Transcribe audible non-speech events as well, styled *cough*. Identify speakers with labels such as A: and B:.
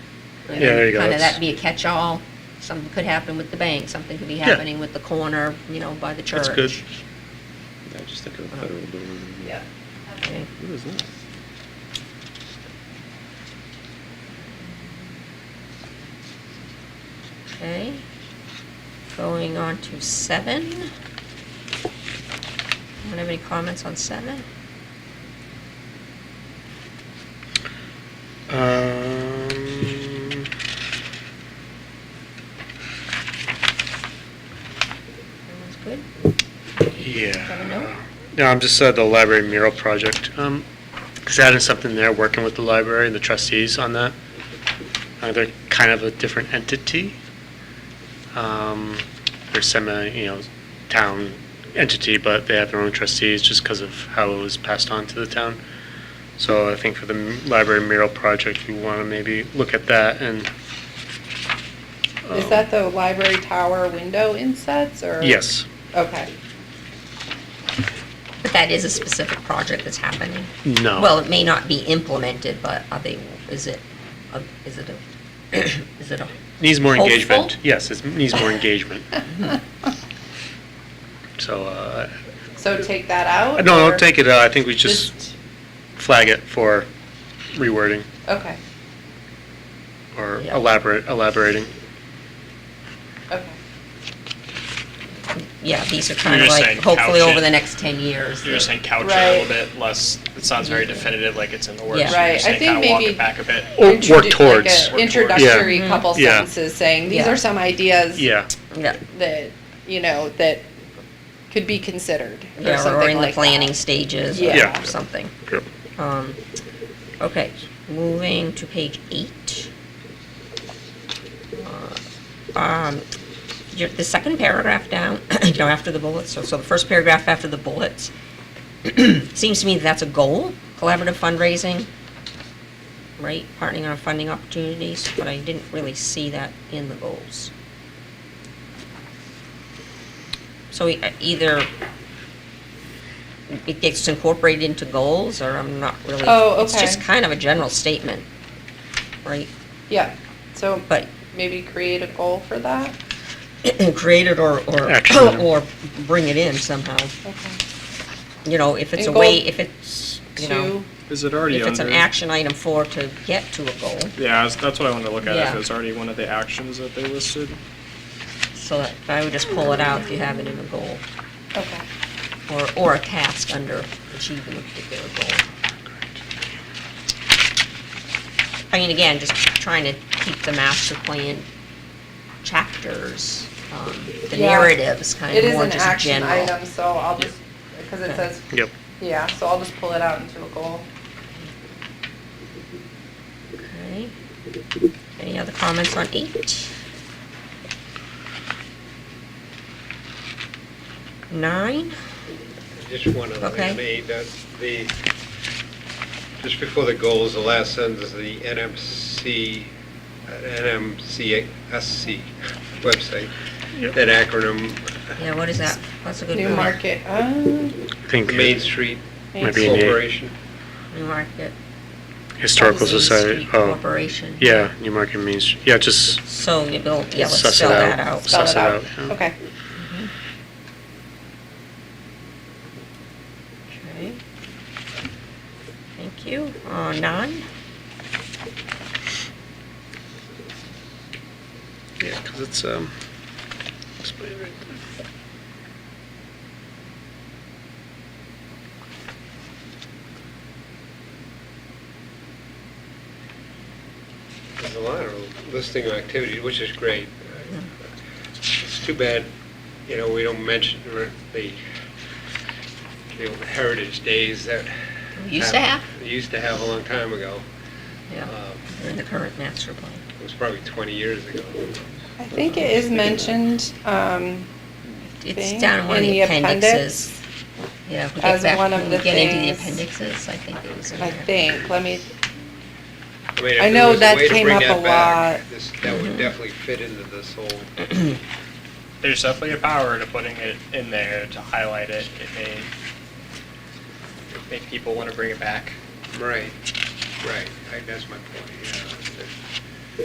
A: Yeah,
B: there you go.
A: Kind of
B: That's-
A: that be a catch-all. Something could happen with the bank, something could be
B: Yeah.
A: happening with the corner, you know, by the church. Uh-huh.
B: That's good.
C: Yeah, I just think of a federal building.
A: Yeah. Okay.
C: What is that?
A: Okay. Going on to seven. Anyone have any comments on seven?
B: Um,
A: Everyone's good? Have a note?
B: yeah. No, I'm just uh, the library mural project. Um, is that is something there working with the library and the trustees on that? Uh, they're kind of a different entity. Um, they're semi, you know, town entity, but they have their own trustees just because of how it was passed on to the town. So I think for the m- library mural project, we want to maybe look at that and.
D: Is
B: um,
D: that the library tower window insets or?
B: Yes.
D: Okay.
A: But that is a specific project that's happening.
B: No.
A: Well, it may not be implemented, but are they, is it, a- is it a, *coughs* is it a,
B: Needs more
A: Hopeful?
B: engagement. Yes, it needs
A: *laughs*
B: more engagement. So, uh,
D: So take that out?
B: no,
D: or
B: don't take it out. I think we just flag it for rewording
D: Okay,
B: or
A: Yeah.
B: elaborate, elaborating.
D: okay.
A: yeah, these are kind of
E: just
A: like,
E: saying couch
A: hopefully over
E: it.
A: the next 10 years.
E: You're
A: that-
E: just saying couch it a little
D: Right.
E: bit less, it sounds very definitive, like it's in the works.
A: Yeah.
E: so you're
D: Right,
E: just
D: I
E: saying
D: think
E: kinda Walk
D: maybe-
E: it back a bit.
B: Or
D: Introdu-
B: work
D: like a
B: towards. Mm-hmm.
E: Work
D: Introductory
A: towards.
D: couple
B: Yeah.
D: sentences saying, these
A: Yeah.
D: are some ideas.
B: Yeah,
A: Yeah,
D: That, you know, that could be considered or
A: yeah, or
D: something
A: in the
D: like
A: planning
D: that.
A: stages
D: Yeah.
A: or something.
B: Yep.
A: Um, Okay, moving to page eight. Uh, um, your- The second paragraph down, *clears throat* you know, after the bullets, so so the first paragraph after the bullets, *clears throat* seems to me that that's a goal, collaborative fundraising, right? Partnering on funding opportunities, but I didn't really see that in the goals. So e- either it gets incorporated into goals, or I'm not really.
D: Oh,
A: It's just
D: okay.
A: kind of a general statement, right? *clears throat*
D: Yeah, so
A: But
D: maybe create a goal for that?
A: create it or, or, *clears throat*
B: Action.
A: or bring it in somehow.
D: Okay.
A: You know, if it's a
D: And goal
A: way, if it's, you know,
D: Two,
E: Is it already
A: if it's an action item for to get to a goal,
E: Yeah, that's what I wanted to look
A: at, if Yeah. it's
E: already one of the actions that they listed.
A: so that, I would just pull it out if you have it in a goal,
D: okay.
A: or, or a task under achieving a particular goal. I mean, again, just trying to keep the master plan chapters, um, the
D: Yeah.
A: narratives kind
D: It
A: of
D: is
A: more
D: an
A: just
D: action
A: general.
D: item, so I'll just, because it
A: Okay.
D: says,
B: yep.
D: yeah, so I'll just pull it out into a goal.
A: Okay. Any other comments on eight? Nine?
F: Just one other thing on
A: Okay.
F: eight, that the, just before the goals, the last sentence, the NMC, uh, NMCSC website, that acronym,
A: Yeah, what is that? That's a good
D: New
A: point.
D: market, uh,
B: I think
F: Main Street
D: Main
B: Maybe in the-
F: Corporation.
A: New Market.
B: Historical
A: Main
B: Society,
A: Street
B: oh,
A: Corporation.
B: yeah, Newmarket Means, Street. yeah, just
A: So you will, yeah, let's
B: Suss it
A: spell
B: out.
A: that out.
D: spell
B: Suss it
D: it out.
B: out, yeah.
D: Okay.
A: Okay. Thank you. Uh, nine?
B: Yeah, because it's, um, explain right
F: There's a lot of listing of activities, which is great. It's too bad, you know, we don't mention the, the heritage days that.
A: Used to have?
F: Used to have a long time ago.
A: Yeah,
F: Um,
A: they're in the current master plan.
F: It was probably 20 years ago.
D: I think it is mentioned, um,
A: It's
D: Thing
A: down in one of
D: in
A: the
D: the appendix
A: appendices. Yeah, if we get
D: as
A: back,
D: one of
A: when we
D: the
A: get into the
D: things-
A: appendixes, I think it was in
D: I
A: there.
D: think, let me,
F: mean, if
D: I
F: there
D: know
F: was a
D: that
F: way to
D: came
F: bring
D: up
F: that
D: a
F: back,
D: lot. Mm-hmm.
F: this- That would definitely fit into this whole,
E: There's definitely a power to putting it in there to highlight it. It may make people want to bring it back.
F: right, right, I- that's my point, yeah.